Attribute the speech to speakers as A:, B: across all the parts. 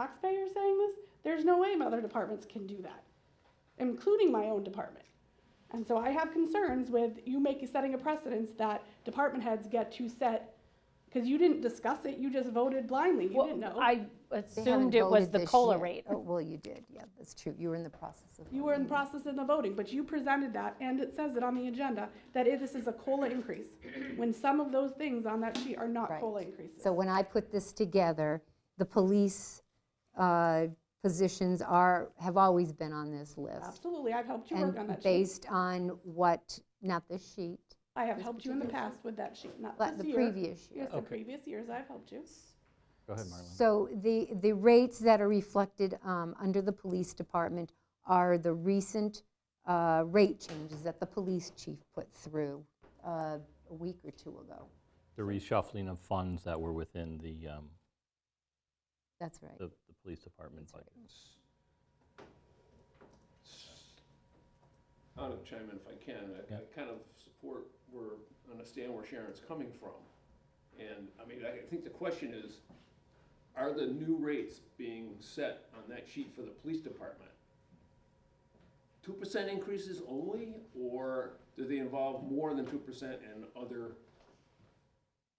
A: taxpayer saying this, there's no way my other departments can do that, including my own department. And so I have concerns with you making, setting a precedence that department heads get to set, because you didn't discuss it, you just voted blindly, you
B: Well,
A: didn't know.
B: Oh, I
C: They
B: assumed
C: haven't
B: it was
C: voted
B: the
C: this
B: COLA
C: yet.
B: rate.
C: Oh, well, you did, yeah, that's true. You were in the process of.
A: You were in the
C: voting.
A: process of the voting, but you presented that, and it says it on the agenda, that it- this is a COLA increase, when some of those things on that sheet are not
C: Right.
A: COLA increases.
C: So when I put this together, the police uh, positions are, have always been on this list.
A: Absolutely, I've helped you work on that
C: And
A: sheet.
C: based on what, not this sheet,
A: I have helped you in the past with that sheet, not
C: but
A: this
C: the
A: year.
C: previous year.
A: Yes, the
D: Okay.
A: previous years, I've helped you.
D: Go ahead, Marlene.
C: So the, the rates that are reflected um, under the police department are the recent uh, rate changes that the police chief put through uh, a week or two ago.
D: The reshuffling of funds that were within the, um,
C: That's right.
D: the the police department budget.
E: I'm gonna chime in if I can. I, I kind of support where, understand where Sharon's coming from. And, I mean, I think the question is, are the new rates being set on that sheet for the police department? Two percent increases only, or do they involve more than two percent and other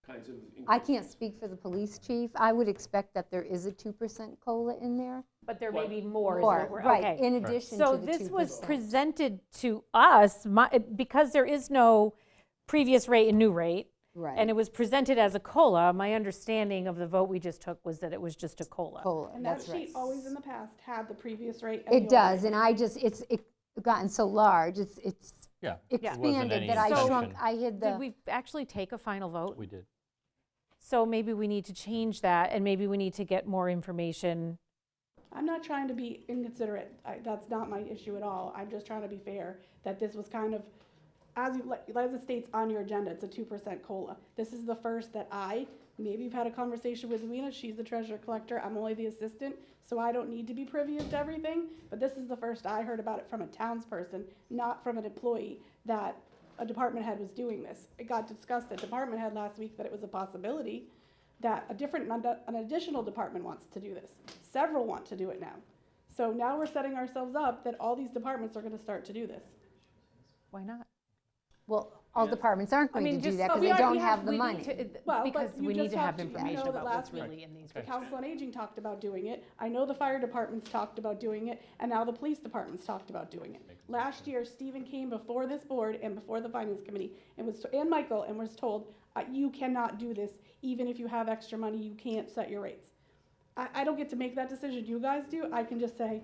E: kinds of increases?
C: I can't speak for the police chief. I would expect that there is a 2% COLA in there.
B: But there may
E: What?
B: be more, is
C: Or,
B: what we're,
C: right,
B: okay.
C: in addition to the
B: So
C: 2%.
B: this was presented to us, my- because there is no previous rate and new rate.
C: Right.
B: And it was presented as a COLA. My understanding of the vote we just took was that it was just a COLA.
C: COLA,
A: And that
C: that's right.
A: sheet always in the past had the previous rate. and the
C: It
A: old
C: does,
A: rate.
C: and I just, it's it gotten so large, it's it's
D: Yeah. There wasn't
C: expanded
D: any
C: that I shrunk,
D: intention.
C: I hid the.
B: Did we actually take a final vote?
D: We did.
B: So maybe we need to change that, and maybe we need to get more information.
A: I'm not trying to be inconsiderate. I, that's not my issue at all. I'm just trying to be fair that this was kind of, as you, like- as it states on your agenda, it's a two percent cola. This is the first that I, maybe you've had a conversation with Lena. She's the treasurer collector. I'm only the assistant, so I don't need to be privy to everything. But this is the first I heard about it from a townsperson, not from an employee, that a department head was doing this. It got discussed at department head last week that it was a possibility that a different, an additional department wants to do this. Several want to do it now. So now we're setting ourselves up that all these departments are gonna start to do this.
B: Why not?
C: Well, all departments aren't
B: I
C: going
B: mean,
C: to do
B: just-
C: that
B: but
C: because
B: we
C: they
B: are-
C: don't
B: we
C: have the
B: we need
C: money.
B: to- it-
A: Well, but
B: Because
A: you
B: we need
A: just
B: to
A: have
B: have
A: to- you know
B: information
A: that
B: about what's
A: last week-
B: really in these.
A: The Council on Aging talked about doing it, I know the fire departments talked about doing it, and now the police departments talked about doing it. Last year, Stephen came before this board and before the finance committee, and was, and Michael, and was told, uh, you cannot do this, even if you have extra money, you can't set your rates. I, I don't get to make that decision, you guys do, I can just say,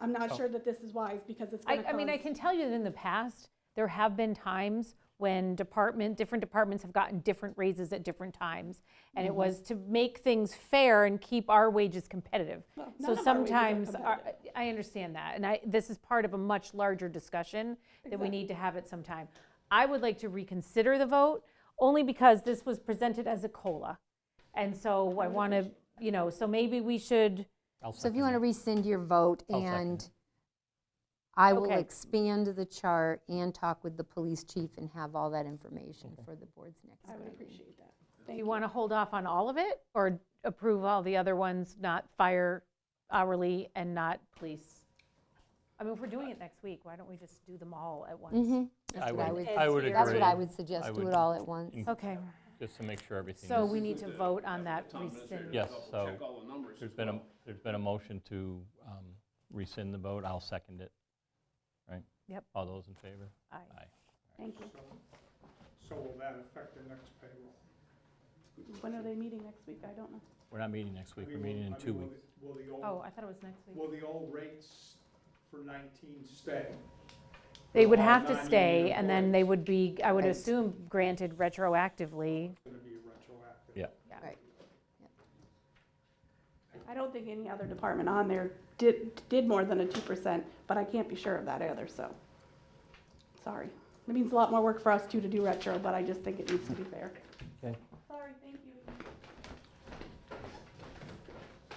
A: I'm not sure that this is wise, because it's gonna
B: I,
A: cause.
B: I mean, I can tell you that in the past, there have been times when department, different departments have gotten different raises at different times. And
A: Mm-hmm.
B: it was to make things fair and keep our wages competitive.
A: Well,
B: So
A: none of our wages are
B: sometimes, our- I understand that, and I, this is part of a much larger discussion that we need to have at some time. I would like to reconsider the vote, only because this was presented as a COLA. And so I want to, you know, so maybe we should,
D: I'll
C: So if
D: second
C: you want to
D: that.
C: rescind your vote
D: I'll second
C: and I will
B: Okay.
C: expand the chart and talk with the police chief and have all that information for the board's next
A: I would
C: meeting.
A: appreciate that.
B: do
A: Thank
B: you want to hold off on all of it? Or approve all the other ones, not fire hourly and not police? I mean, if we're doing it next week, why don't we just do them all at once?
C: Mm-hmm. That's what I would,
D: I would agree.
C: that's what I would suggest,
D: I
C: do
D: would-
C: it all at once.
D: in-
B: Okay,
D: Just to make sure everything
B: so
D: is-
B: we need to vote on that
E: Town administrator
B: rescind.
D: Yes,
E: double check
D: so
E: all the numbers
D: There's
E: as
D: been a,
E: well.
D: there's been a motion to um, rescind the vote. I'll second it. Right?
B: Yep.
D: All those in favor?
B: Aye.
A: Thank you.
F: So will that affect the next payroll?
A: When are they meeting next week? I don't know.
D: We're not meeting next
F: I
D: week. We're
F: mean, will-
D: meeting in
F: I mean,
D: two
F: will
D: weeks.
F: the- Will the
B: Oh,
F: old,
B: I thought it was next week.
F: will the old rates for 19 stay?
B: They would
F: All
B: have to
F: non-union
B: stay, and then they
F: employees.
B: would be, I would
C: Right.
B: assume, granted retroactively.
F: It's going to be retroactive.
D: Yeah.
A: I don't think any other department on there did, did more than a two percent, but I can't be sure of that either, so. Sorry. It means a lot more work for us too to do retro, but I just think it needs to be fair.
D: Okay.
A: Sorry, thank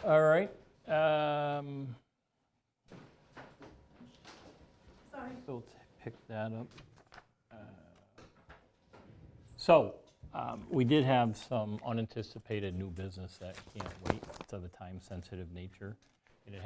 A: you.
D: All right. um,
A: Sorry.
D: We'll t- pick that up. Uh, So, um, we did have some unanticipated new business that can't wait of the time-sensitive nature.